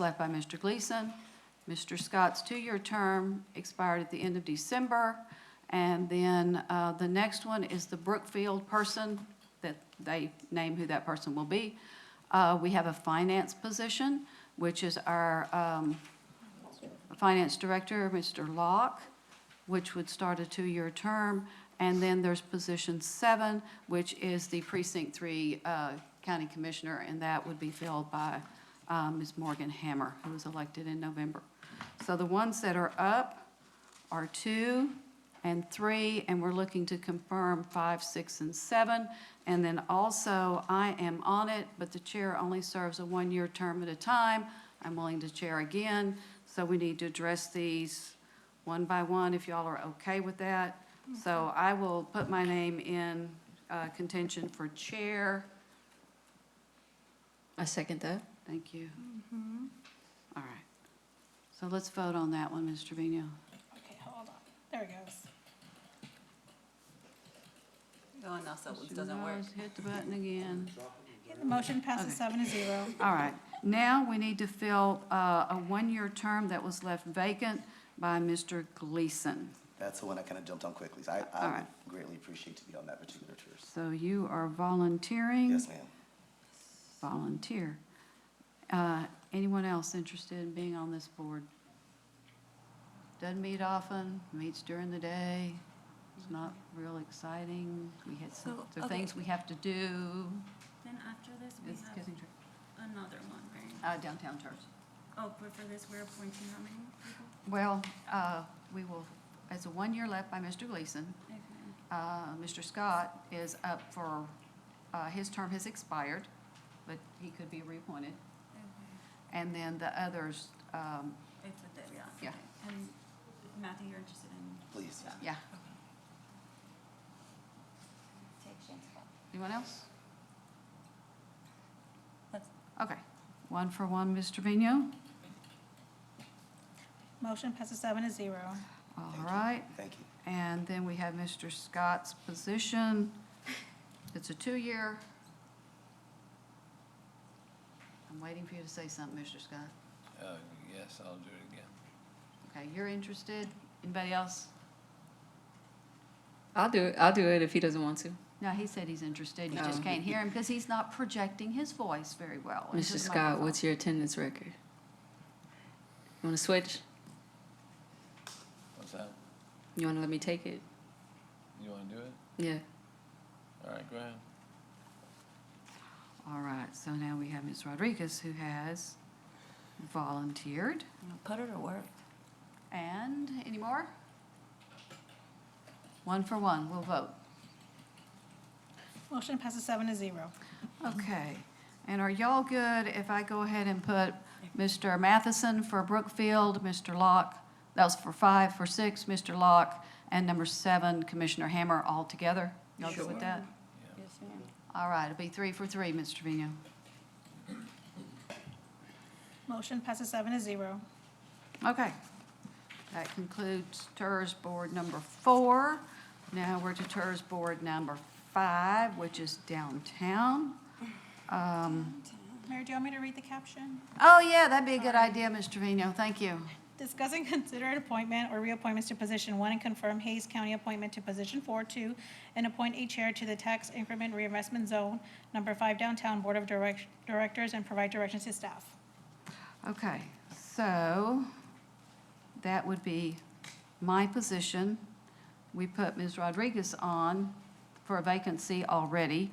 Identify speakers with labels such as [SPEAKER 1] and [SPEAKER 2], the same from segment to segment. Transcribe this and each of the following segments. [SPEAKER 1] left by Mr. Gleason. Mr. Scott's two-year term expired at the end of December. And then uh, the next one is the Brookfield person, that they name who that person will be. Uh, We have a finance position, which is our um, finance director, Mr. Locke, which would start a two-year term. And then there's position seven, which is the precinct three uh, county commissioner, and that would be filled by uh, Ms. Morgan Hammer, who was elected in November. So the ones that are up are two and three, and we're looking to confirm five, six, and seven. And then also, I am on it, but the chair only serves a one-year term at a time. I'm willing to chair again, so we need to address these one by one, if y'all are okay with that. So I will put my name in uh, contention for chair.
[SPEAKER 2] I second that.
[SPEAKER 1] Thank you. All right. So let's vote on that one, Ms. Trevino.
[SPEAKER 3] Okay, hold on. There it goes.
[SPEAKER 4] Oh, no, so it
[SPEAKER 1] Mr.
[SPEAKER 4] doesn't work.
[SPEAKER 1] Morris, Hit the button again.
[SPEAKER 3] Yeah, the motion passes seven to zero.
[SPEAKER 1] All right, now we need to fill uh, a one-year term that was left vacant by Mr. Gleason.
[SPEAKER 5] That's the one I kind of jumped on quickly. So I,
[SPEAKER 1] All
[SPEAKER 5] I would
[SPEAKER 1] right.
[SPEAKER 5] greatly appreciate to be on that particular tour.
[SPEAKER 1] So you are volunteering?
[SPEAKER 5] Yes, ma'am.
[SPEAKER 1] Volunteer. Uh, Anyone else interested in being on this board? Doesn't meet often, meets during the day, it's not real exciting. We had some,
[SPEAKER 6] So,
[SPEAKER 1] there are things
[SPEAKER 6] okay.
[SPEAKER 1] we have to do.
[SPEAKER 6] Then after this, we
[SPEAKER 1] It's
[SPEAKER 6] have
[SPEAKER 1] getting-
[SPEAKER 6] another one, right?
[SPEAKER 1] uh, Downtown church.
[SPEAKER 6] Oh, but for this, we're appointing how many people?
[SPEAKER 1] Well, uh, we will, it's a one-year left by Mr. Gleason.
[SPEAKER 6] Okay.
[SPEAKER 1] Uh, Mr. Scott is up for, uh, his term has expired, but he could be reappointed.
[SPEAKER 6] Okay.
[SPEAKER 1] And then the others, um,
[SPEAKER 6] It's a dead, yeah.
[SPEAKER 1] Yeah.
[SPEAKER 6] okay. And Matthew, you're interested in?
[SPEAKER 5] Please.
[SPEAKER 1] yeah. Anyone else?
[SPEAKER 4] Let's-
[SPEAKER 1] Okay, one for one, Mr. Trevino.
[SPEAKER 3] Motion passes seven to zero.
[SPEAKER 1] All
[SPEAKER 5] Thank you.
[SPEAKER 1] right,
[SPEAKER 5] Thank you.
[SPEAKER 1] and then we have Mr. Scott's position. It's a two-year. I'm waiting for you to say something, Mr. Scott.
[SPEAKER 7] Uh, Yes, I'll do it again.
[SPEAKER 1] Okay, you're interested? Anybody else?
[SPEAKER 2] I'll do it. I'll do it if he doesn't want to.
[SPEAKER 1] No, he said he's interested, you just
[SPEAKER 2] Oh.
[SPEAKER 1] can't hear him because he's not projecting his voice very well. into
[SPEAKER 2] Mr.
[SPEAKER 1] the
[SPEAKER 2] Scott,
[SPEAKER 1] microphone.
[SPEAKER 2] what's your attendance record? You want to switch?
[SPEAKER 7] What's that?
[SPEAKER 2] You want to let me take it?
[SPEAKER 7] You want to do it?
[SPEAKER 2] Yeah.
[SPEAKER 7] All right, go ahead.
[SPEAKER 1] All right, so now we have Ms. Rodriguez who has volunteered.
[SPEAKER 4] Put her to work.
[SPEAKER 1] And any more? One for one, we'll vote.
[SPEAKER 3] Motion passes seven to zero.
[SPEAKER 1] Okay, and are y'all good if I go ahead and put Mr. Matheson for Brookfield, Mr. Locke, that was for five, for six, Mr. Locke, and number seven, Commissioner Hammer, all together? Y'all good with that?
[SPEAKER 4] Yes, ma'am.
[SPEAKER 1] All right, it'll be three for three, Mr. Trevino.
[SPEAKER 3] Motion passes seven to zero.
[SPEAKER 1] Okay. That concludes TERS Board number four. Now we're to TERS Board number five, which is downtown. Um,
[SPEAKER 3] Mayor, do you want me to read the caption?
[SPEAKER 1] Oh, yeah, that'd be a good idea, Mr. Trevino, thank you.
[SPEAKER 3] Discuss and consider an appointment or reappointments to position one and confirm Hayes County appointment to position four, two, and appoint a chair to the tax increment reinvestment zone, number five downtown board of direct, directors, and provide directions to staff.
[SPEAKER 1] Okay, so that would be my position. We put Ms. Rodriguez on for a vacancy already.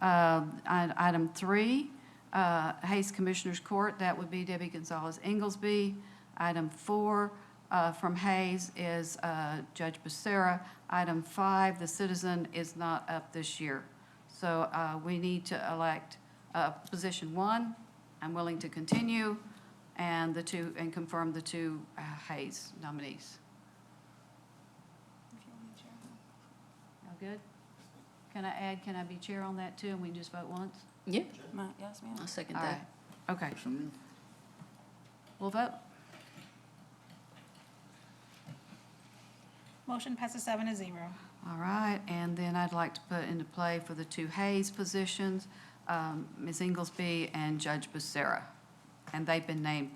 [SPEAKER 1] Uh, i- Item three, uh, Hayes Commissioners Court, that would be Debbie Gonzalez Inglesby. Item four uh, from Hayes is uh, Judge Becerra. Item five, the citizen is not up this year. So uh, we need to elect uh, position one. I'm willing to continue, and the two, and confirm the two uh, Hayes nominees.
[SPEAKER 6] If you want to chair.
[SPEAKER 1] All good? Can I add, can I be chair on that too, and we can just vote once?
[SPEAKER 2] Yeah.
[SPEAKER 4] Ma- Yes, ma'am.
[SPEAKER 2] I'll second
[SPEAKER 1] All right,
[SPEAKER 2] that.
[SPEAKER 1] okay. We'll vote?
[SPEAKER 3] Motion passes seven to zero.
[SPEAKER 1] All right, and then I'd like to put into play for the two Hayes positions, um, Ms. Inglesby and Judge Becerra. And they've been named